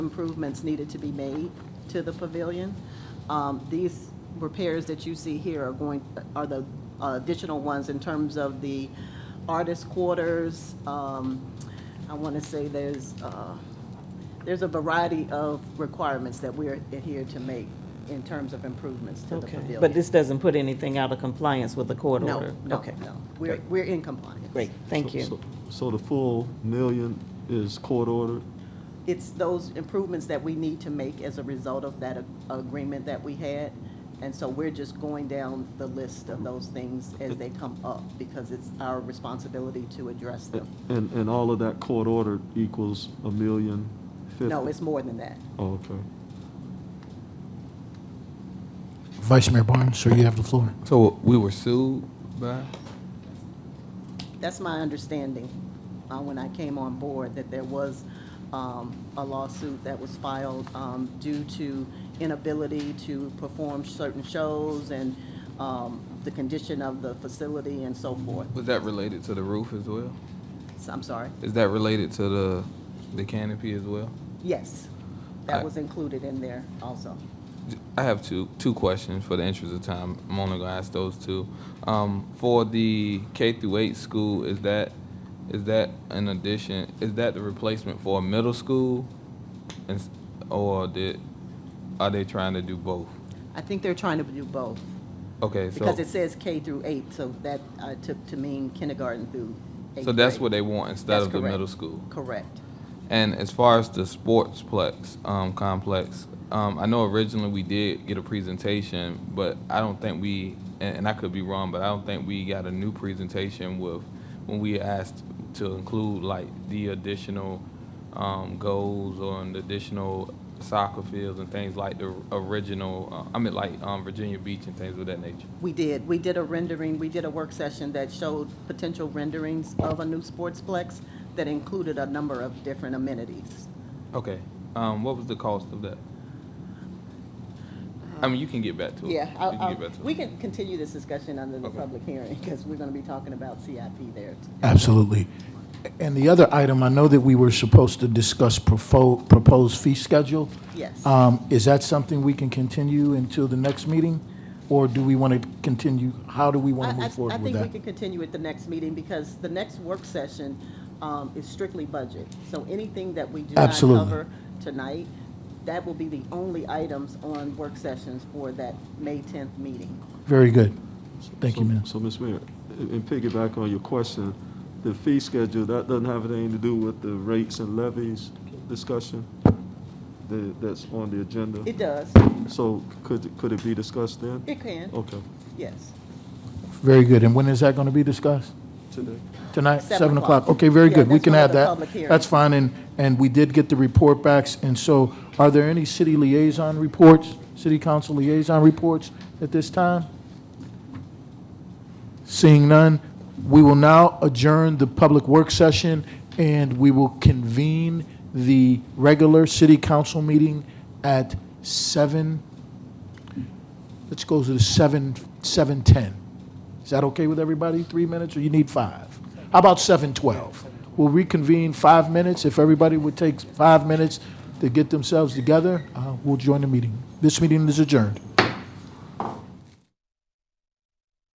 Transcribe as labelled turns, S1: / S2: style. S1: improvements needed to be made to the pavilion. Um, These repairs that you see here are going, are the uh, additional ones in terms of the artist quarters. Um, I want to say there's, uh, there's a variety of requirements that we're adhered to make in terms of improvements to the
S2: Okay,
S1: pavilion.
S2: but this doesn't put anything out of compliance with the court
S1: No,
S2: order?
S1: no,
S2: Okay,
S1: no. We're, we're in compliance.
S2: Great, thank
S3: So-
S2: you.
S3: So the full million is court ordered?
S1: It's those improvements that we need to make as a result of that ag- agreement that we had. And so we're just going down the list of those things as they come up because it's our responsibility to address them.
S3: And, and all of that court ordered equals a million fifty?
S1: No, it's more than that.
S3: Oh, Okay.
S4: Vice Mayor Barnes, sir, you have the floor.
S5: So we were sued by?
S1: That's my understanding, uh, when I came on board, that there was, um, a lawsuit that was filed, um, due to inability to perform certain shows and, um, the condition of the facility and so forth.
S5: Was that related to the roof as well?
S1: So, I'm sorry.
S5: Is that related to the, the canopy as well?
S1: Yes, that
S5: I-
S1: was included in there also.
S5: J- I have two, two questions for the interest of time. I'm only gonna ask those two. Um, for the K through eight school, is that, is that an addition, is that the replacement for a middle school? Ins- Or did, are they trying to do both?
S1: I think they're trying to do both,
S5: Okay, so.
S1: because it says K through eight, so that I took to mean kindergarten through eighth
S5: So that's
S1: grade.
S5: what they want instead
S1: That's
S5: of the
S1: correct.
S5: middle school?
S1: Correct.
S5: And as far as the sportsplex um, complex, um, I know originally we did get a presentation, but I don't think we, and, and I could be wrong, but I don't think we got a new presentation with when we asked to include like the additional um, goals or an additional soccer fields and things like the original. Uh, I mean, like um, Virginia Beach and things of that nature.
S1: We did, we did a rendering, we did a work session that showed potential renderings of a new sportsplex that included a number of different amenities.
S5: Okay. Um, what was the cost of that? I mean, you can get back to it.
S1: Yeah,
S5: you
S1: I'll-
S5: can
S1: I'll-
S5: get back to it.
S1: we can continue this discussion under the
S5: Okay.
S1: public hearing, because we're going to be talking about CIP there.
S4: Absolutely. And the other item, I know that we were supposed to discuss profo- proposed fee schedule.
S1: Yes.
S4: Um, Is that something we can continue until the next meeting? Or do we want to continue, how do we
S1: I-
S4: want to
S1: I-
S4: move forward with
S1: I
S4: that?
S1: think we can continue at the next meeting, because the next work session um, is strictly budget. So anything that we do not
S4: Absolutely.
S1: cover tonight, that will be the only items on work sessions for that May 10th meeting.
S4: Very good. Thank you,
S3: So-
S4: ma'am.
S3: So, Ms. Mayor, and and piggyback on your question, the fee schedule, that doesn't have anything to do with the rates and levies discussion the- that's on the agenda?
S1: It does.
S3: So could, could it be discussed then?
S1: It can,
S3: Okay,
S1: yes.
S4: Very good. And when is that going to be discussed?
S3: today.
S4: Tonight,
S1: Seven
S4: 7 o'clock?
S1: o'clock.
S4: Okay, very
S1: Yeah,
S4: good. We
S1: that's
S4: can
S1: one of
S4: add
S1: the
S4: that.
S1: public hearings.
S4: That's fine, and, and we did get the report backs, and so are there any city liaison reports, city council liaison reports at this time? Seeing none, we will now adjourn the public work session, and we will convene the regular city council meeting at 7, let's go to the 7, 7:10. Is that okay with everybody? Three minutes, or you need five? How about seven twelve? We'll reconvene five minutes. If everybody would take five minutes to get themselves together, uh, we'll join the meeting. This meeting is adjourned.